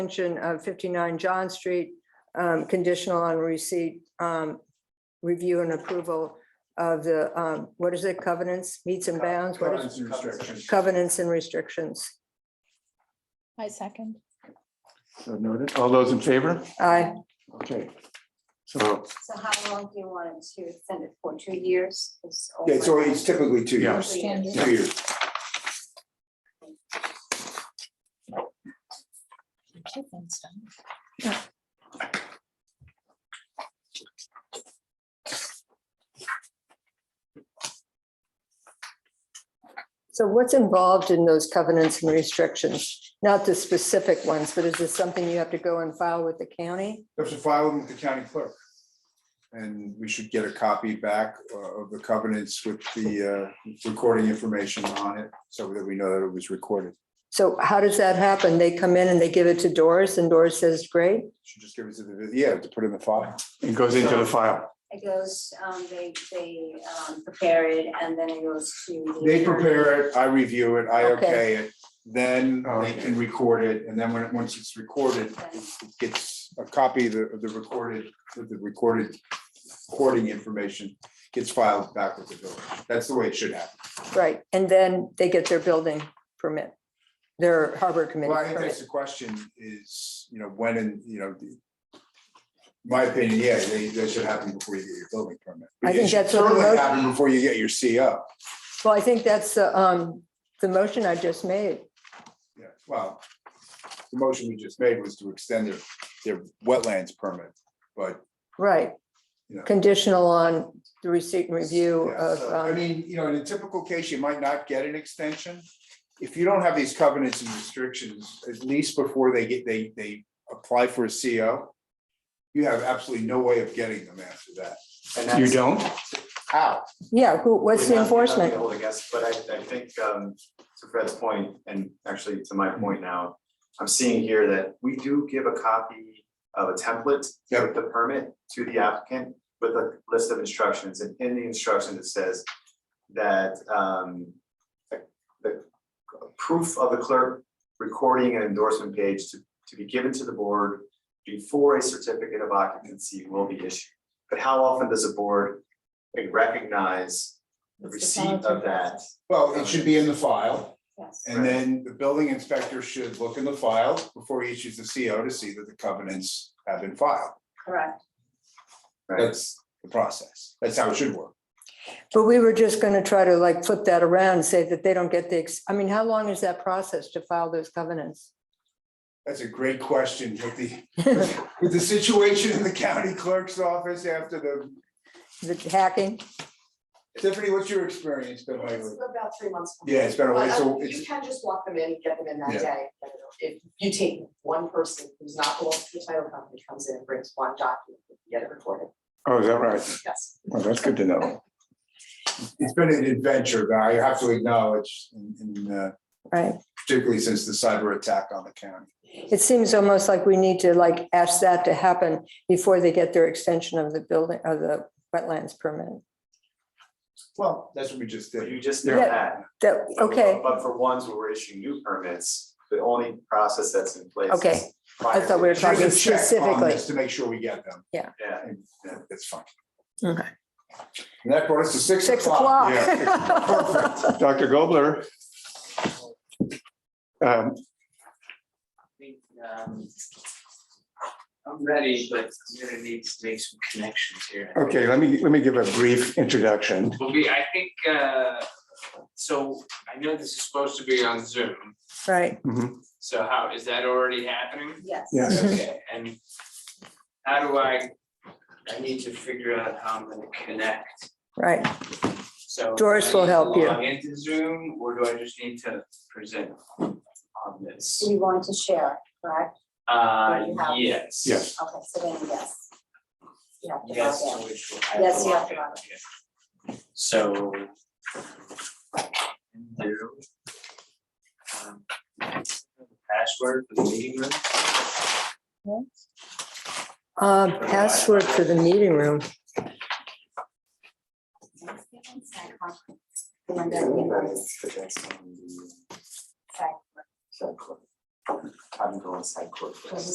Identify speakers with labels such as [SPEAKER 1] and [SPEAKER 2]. [SPEAKER 1] extension of 59 John Street, um, conditional on receipt, um, review and approval of the, um, what is it, covenants, meets and bounds? What is
[SPEAKER 2] Covenants and restrictions.
[SPEAKER 1] covenants and restrictions?
[SPEAKER 3] I second.
[SPEAKER 2] So noted. All those in favor?
[SPEAKER 1] Aye.
[SPEAKER 2] Okay. So,
[SPEAKER 4] So how long do you want it to extend it for? Two years? It's
[SPEAKER 5] Yeah, it's
[SPEAKER 4] over.
[SPEAKER 5] already, it's typically two
[SPEAKER 2] Yeah.
[SPEAKER 5] years,
[SPEAKER 3] Standard.
[SPEAKER 5] two years.
[SPEAKER 1] So what's involved in those covenants and restrictions? Not the specific ones, but is this something you have to go and file with the county?
[SPEAKER 5] You Have to file them with the county clerk. And we should get a copy back uh, of the covenants with the uh, recording information on it, so that we know that it was recorded.
[SPEAKER 1] So how does that happen? They come in and they give it to Doris and Doris says, great.
[SPEAKER 5] Should just give it to the, yeah, to put in the file.
[SPEAKER 2] it goes into the file.
[SPEAKER 4] It goes, um, they, they, um, prepare it and then it goes to. the
[SPEAKER 5] They
[SPEAKER 4] attorney.
[SPEAKER 5] prepare it, I review it, I
[SPEAKER 1] Okay.
[SPEAKER 5] okay it, then they
[SPEAKER 2] Oh, Okay.
[SPEAKER 5] can record it, and then when, it once it's recorded,
[SPEAKER 4] Then
[SPEAKER 5] it gets a copy of the, of the recorded, with the recorded recording information gets filed back with the village. That's the way it should happen.
[SPEAKER 1] Right, and then they get their building permit, their harbor committee
[SPEAKER 5] Well, I think that's
[SPEAKER 1] permit.
[SPEAKER 5] the question is, you know, when and, you know, the- my opinion, yeah, they, that should happen before you get your building permit.
[SPEAKER 1] I think
[SPEAKER 5] It should
[SPEAKER 1] that's what the
[SPEAKER 5] Certainly
[SPEAKER 1] motion-
[SPEAKER 5] happen before you get your CO.
[SPEAKER 1] Well, I think that's the, um, the motion I just made.
[SPEAKER 5] Yeah, well, the motion we just made was to extend their, their wetlands permit, but,
[SPEAKER 1] Right.
[SPEAKER 5] Yeah.
[SPEAKER 1] Conditional on the receipt and review
[SPEAKER 5] yeah,
[SPEAKER 1] of,
[SPEAKER 5] so, I
[SPEAKER 1] um,
[SPEAKER 5] mean, you know, in a typical case, you might not get an extension. If you don't have these covenants and restrictions, at least before they get, they, they apply for a CO, you have absolutely no way of getting them after that. And
[SPEAKER 2] You
[SPEAKER 5] that's
[SPEAKER 2] don't?
[SPEAKER 5] how.
[SPEAKER 1] yeah, who, what's the
[SPEAKER 6] Would not- would not be
[SPEAKER 1] enforcement?
[SPEAKER 6] able to guess, but I, I think, um, to Fred's point, and actually to my point now, I'm seeing here that we do give a copy of uh, a template
[SPEAKER 5] Yeah.
[SPEAKER 6] with the permit to the applicant with a list of instructions, and in the instructions, it says that, um, the- the proof of the clerk recording and endorsement page to, to be given to the board before a certificate of occupancy will be issued. But how often does a board recognize the receipt of that.
[SPEAKER 5] Well, it should be in the file,
[SPEAKER 4] Yes.
[SPEAKER 5] and then the building inspector should look in the file before he issues the CO to see that the covenants have been filed.
[SPEAKER 4] Correct.
[SPEAKER 5] That's the process. That's how it should work.
[SPEAKER 1] But we were just gonna try to like flip that around and say that they don't get the, ex- I mean, how long is that process to file those covenants?
[SPEAKER 5] That's a great question with the, with the situation in the county clerk's office after the,
[SPEAKER 1] The hacking?
[SPEAKER 5] Tiffany, what's your experience been like?
[SPEAKER 7] It's
[SPEAKER 5] with-
[SPEAKER 7] about three months.
[SPEAKER 5] Yeah, it's been a while,
[SPEAKER 7] Well,
[SPEAKER 5] so
[SPEAKER 7] I- uh, You
[SPEAKER 5] it's,
[SPEAKER 7] can just walk them in and get them in that
[SPEAKER 5] Yeah.
[SPEAKER 7] day. If you take one person who's not belongs to the title company comes in and brings one document, you get it recorded.
[SPEAKER 2] Oh, is that right?
[SPEAKER 7] Yes.
[SPEAKER 2] Well, that's good to know.
[SPEAKER 5] it's been an adventure, but I have to acknowledge, in- in, uh,
[SPEAKER 1] Right.
[SPEAKER 5] particularly since the cyber attack on the county.
[SPEAKER 1] It seems almost like we need to like ask that to happen before they get their extension of the building, of the wetlands permit.
[SPEAKER 5] Well, that's what we just
[SPEAKER 6] But
[SPEAKER 5] did.
[SPEAKER 6] you just did
[SPEAKER 1] Yeah.
[SPEAKER 6] that.
[SPEAKER 1] That,
[SPEAKER 6] But-
[SPEAKER 1] okay,
[SPEAKER 6] But for ones where we're issuing new permits, the only process that's in place. is
[SPEAKER 1] Okay.
[SPEAKER 6] prior
[SPEAKER 1] I thought we were
[SPEAKER 5] There's
[SPEAKER 6] to-
[SPEAKER 5] a
[SPEAKER 1] talking
[SPEAKER 5] check on
[SPEAKER 1] specifically.
[SPEAKER 5] this To make sure we get them.
[SPEAKER 6] Yeah,
[SPEAKER 5] And that- That's fine.
[SPEAKER 1] Okay.
[SPEAKER 5] And that brought us to six
[SPEAKER 1] Six
[SPEAKER 5] o'clock.
[SPEAKER 1] o'clock.
[SPEAKER 5] Yeah.
[SPEAKER 2] Dr. Gobler. Um,
[SPEAKER 8] think, um, I'm ready, but I'm gonna need to make some connections here.
[SPEAKER 2] Okay, let me, let me give a brief introduction.
[SPEAKER 8] Will be, I think, uh, so I know this is supposed to be on Zoom,
[SPEAKER 1] Right,
[SPEAKER 2] Mhm.
[SPEAKER 8] so how, is that already happening?
[SPEAKER 4] Yes.
[SPEAKER 2] Yes.
[SPEAKER 1] Mm-hmm.
[SPEAKER 8] Okay, and how do I, I need to figure out how I'm gonna connect,
[SPEAKER 1] right.
[SPEAKER 8] so.
[SPEAKER 1] Doris
[SPEAKER 8] do I
[SPEAKER 1] will
[SPEAKER 8] need to
[SPEAKER 1] help you.
[SPEAKER 8] Log into Zoom, or do I just need to present on this?
[SPEAKER 4] So you wanted to share, correct?
[SPEAKER 8] Uh,
[SPEAKER 4] you have-
[SPEAKER 8] yes.
[SPEAKER 2] Yes.
[SPEAKER 4] Okay, so then yes. You have to
[SPEAKER 8] Yes,
[SPEAKER 4] log in.
[SPEAKER 8] to which one? I
[SPEAKER 4] Yes, you have
[SPEAKER 8] log
[SPEAKER 4] to
[SPEAKER 8] in,
[SPEAKER 4] log
[SPEAKER 8] okay. So. do, um, Password for the meeting room?
[SPEAKER 1] Um, password for the meeting room.
[SPEAKER 4] The one that we have.
[SPEAKER 6] That's- that's on the
[SPEAKER 4] Sorry.
[SPEAKER 6] side clip. having to go inside court. for this.